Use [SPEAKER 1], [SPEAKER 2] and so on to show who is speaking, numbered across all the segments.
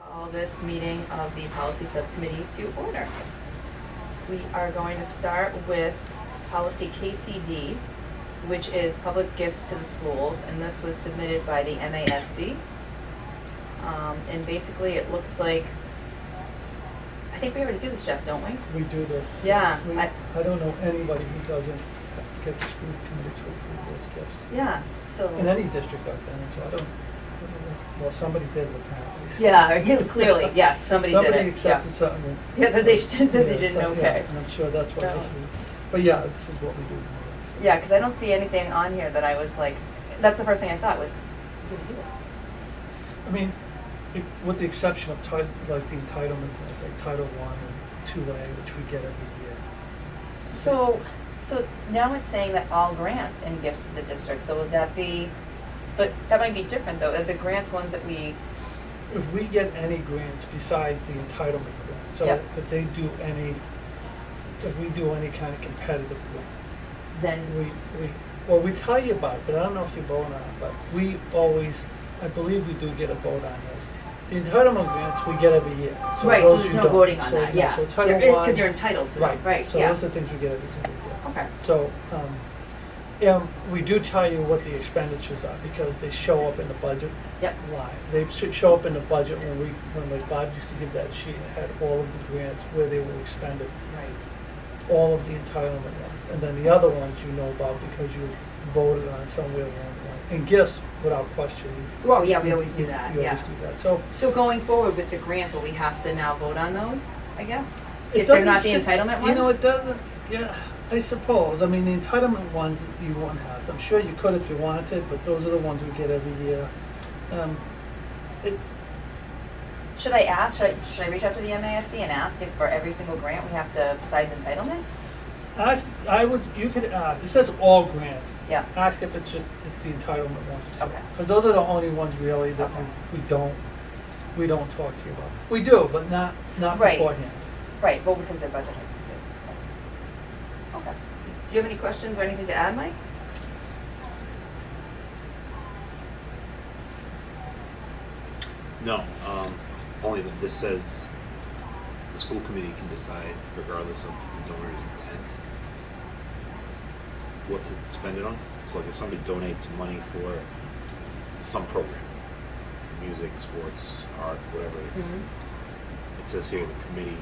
[SPEAKER 1] call this meeting of the policy subcommittee to order. We are going to start with policy KCD, which is public gifts to the schools, and this was submitted by the MASC. Um, and basically, it looks like, I think we already do this, Jeff, don't we?
[SPEAKER 2] We do this.
[SPEAKER 1] Yeah,
[SPEAKER 2] We-
[SPEAKER 1] I-
[SPEAKER 2] I don't know anybody who doesn't get the school committee to approve those gifts.
[SPEAKER 1] Yeah, so.
[SPEAKER 2] In any district I've been in, so I don't, I don't know. well, somebody did with that.
[SPEAKER 1] Yeah, clearly, yes, somebody did
[SPEAKER 2] Somebody
[SPEAKER 1] it, yeah.
[SPEAKER 2] accepted something.
[SPEAKER 1] Yeah, that they should- that they
[SPEAKER 2] Yeah,
[SPEAKER 1] didn't,
[SPEAKER 2] so- yeah,
[SPEAKER 1] okay.
[SPEAKER 2] And I'm sure that's why this is,
[SPEAKER 1] No.
[SPEAKER 2] but yeah, this is what we do. so.
[SPEAKER 1] Yeah, because I don't see anything on here that I was like, that's the first thing I thought was, who would do this?
[SPEAKER 2] I mean, it- with the exception of title, like the entitlement, laws, like Title One and Two A, which we get every year.
[SPEAKER 1] So, so now it's saying that all grants and gifts to the district, so would that be, but that might be different though, are the grants ones that we,
[SPEAKER 2] If we get any grants besides the entitlement grant, so
[SPEAKER 1] Yep.
[SPEAKER 2] if they do any, if we do any kind of competitive grant, we,
[SPEAKER 1] then,
[SPEAKER 2] we, well, we tell you about it, but I don't know if you vote on it, but we always, I believe we do get a vote on those. The entitlement grants we get every year, so
[SPEAKER 1] right, so
[SPEAKER 2] those
[SPEAKER 1] there's
[SPEAKER 2] you
[SPEAKER 1] no
[SPEAKER 2] don't.
[SPEAKER 1] voting on
[SPEAKER 2] So,
[SPEAKER 1] that, yeah.
[SPEAKER 2] So Title One.
[SPEAKER 1] Because you're entitled to them, right,
[SPEAKER 2] So
[SPEAKER 1] yeah.
[SPEAKER 2] those are things we get every single year.
[SPEAKER 1] Okay,
[SPEAKER 2] So, um, and we do tell you what the expenditures are because they show up in the budget
[SPEAKER 1] yep,
[SPEAKER 2] line. They should show up in the budget when we, when like Bob used to give that sheet, it had all of the grants where they were expended,
[SPEAKER 1] right,
[SPEAKER 2] all of the entitlement ones. And then the other ones you know about because you voted on somewhere along the line. And gifts, without question. you-
[SPEAKER 1] Well, yeah, we always do that,
[SPEAKER 2] You always
[SPEAKER 1] yeah.
[SPEAKER 2] do that. So
[SPEAKER 1] so going forward with the grants, will we have to now vote on those, I guess?
[SPEAKER 2] It
[SPEAKER 1] If they're
[SPEAKER 2] doesn't
[SPEAKER 1] not the
[SPEAKER 2] sit-
[SPEAKER 1] entitlement
[SPEAKER 2] You know, it
[SPEAKER 1] ones?
[SPEAKER 2] doesn't, yeah, I suppose. I mean, the entitlement ones you won't have. I'm sure you could if you wanted, but those are the ones we get every year. Um, it,
[SPEAKER 1] Should I ask, should I, should I reach out to the MASC and ask if for every single grant we have to, besides entitlement?
[SPEAKER 2] ask, I would, you could ask, it says all grants.
[SPEAKER 1] Yeah,
[SPEAKER 2] Ask if it's just, it's the entitlement ones too.
[SPEAKER 1] Okay.
[SPEAKER 2] Because those are the only ones really that
[SPEAKER 1] Okay.
[SPEAKER 2] we, we don't, we don't talk to you about. We do, but not, not
[SPEAKER 1] Right.
[SPEAKER 2] beforehand.
[SPEAKER 1] right, well, because their budget hikes too. Okay. Do you have any questions or anything to add, Mike?
[SPEAKER 3] No, um, only that this says the school committee can decide, regardless of the donor's intent, what to spend it on. So like if somebody donates money for some program, music, sports, art, whatever it
[SPEAKER 1] Mm-hmm.
[SPEAKER 3] is, it says here the committee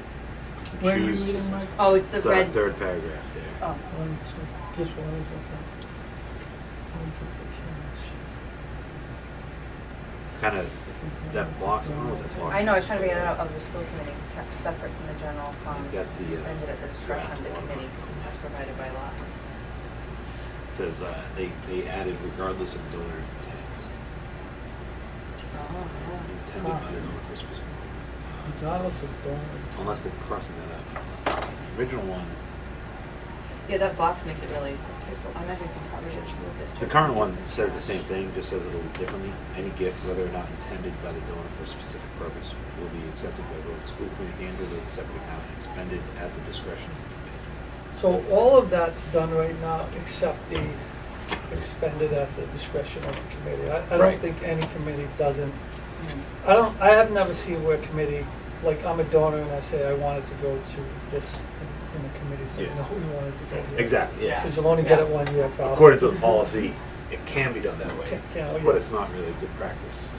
[SPEAKER 3] can
[SPEAKER 2] Where are you
[SPEAKER 3] choose.
[SPEAKER 2] reading, Mike?
[SPEAKER 1] Oh, it's the
[SPEAKER 3] It's, uh,
[SPEAKER 1] red.
[SPEAKER 3] third paragraph there.
[SPEAKER 1] Oh,
[SPEAKER 2] One, two, just one, okay. One fifty,
[SPEAKER 3] It's kind of,
[SPEAKER 2] change.
[SPEAKER 3] that box, I don't know what that box
[SPEAKER 1] I know, I was trying to get it out of the school committee, kept separate from the general fund,
[SPEAKER 3] That's the, uh,
[SPEAKER 1] suspended at the discretion of the
[SPEAKER 3] draft one.
[SPEAKER 1] committee as provided by law.
[SPEAKER 3] It says, uh, they, they added regardless of donor intent,
[SPEAKER 1] Oh,
[SPEAKER 3] intended by the donor for a specific.
[SPEAKER 2] Regardless of donor.
[SPEAKER 3] Unless they're crossing that out. The Original one,
[SPEAKER 1] yeah. Yeah, that box makes it really, I'm not even covered in school district.
[SPEAKER 3] the current one says the same thing, just says it a little differently. Any gift, whether or not intended by the donor for a specific purpose, will be accepted by both the school committee and or as a separate account and expended at the discretion of the committee.
[SPEAKER 2] So all of that's done right now except the expended at the discretion of the committee. I, I don't
[SPEAKER 3] Right.
[SPEAKER 2] think any committee doesn't,
[SPEAKER 1] Mm.
[SPEAKER 2] I don't, I have never seen where a committee, like I'm a donor and I say I wanted to go to this and and the committee said,
[SPEAKER 3] Yeah.
[SPEAKER 2] no, we wanted to go there.
[SPEAKER 3] Exactly,
[SPEAKER 1] yeah.
[SPEAKER 2] Because you'll only get it
[SPEAKER 1] Yeah.
[SPEAKER 2] one year probably.
[SPEAKER 3] According to the policy, it can be done that way,
[SPEAKER 2] Yeah, oh, yeah.
[SPEAKER 3] but it's not really good practice.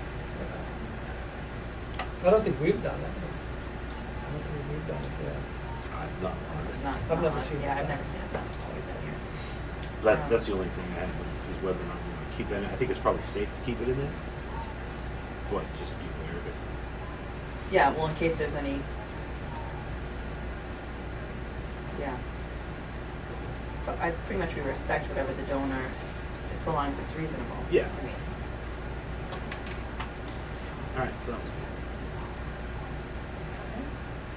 [SPEAKER 2] I don't think we've done it. I don't think we've done it, yeah.
[SPEAKER 3] I've not learned it.
[SPEAKER 1] Not-
[SPEAKER 2] I've never
[SPEAKER 1] not-
[SPEAKER 2] seen
[SPEAKER 1] Yeah,
[SPEAKER 2] that.
[SPEAKER 1] I've never seen it done before we've been here.
[SPEAKER 3] That's, that's the only thing I have, is whether or not we want to keep that in. I think it's probably safe to keep it in there. But just be aware of it.
[SPEAKER 1] Yeah, well, in case there's any. Yeah. But I, pretty much we respect whatever the donor, s- s- so long as it's reasonable. I
[SPEAKER 3] Yeah.
[SPEAKER 1] mean,
[SPEAKER 3] All right, so that was good.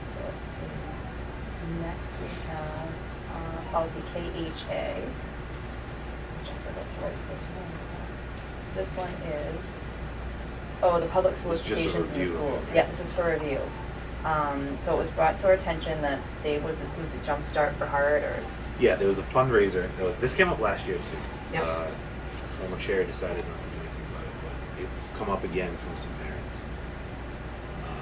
[SPEAKER 1] So let's see. Next we have, uh, policy KHA. Which I forgot to write this one. This one is, oh, the public
[SPEAKER 3] This is just a
[SPEAKER 1] solicitations in the
[SPEAKER 3] review,
[SPEAKER 1] schools.
[SPEAKER 3] right?
[SPEAKER 1] Yeah, this is for review. Um, so it was brought to our attention that they, was it, was it Jumpstart for Heart or
[SPEAKER 3] Yeah, there was a fundraiser. uh, This came up last year too.
[SPEAKER 1] Yep.
[SPEAKER 3] Uh, former chair decided not to do anything about it, but it's come up again from some parents. Um,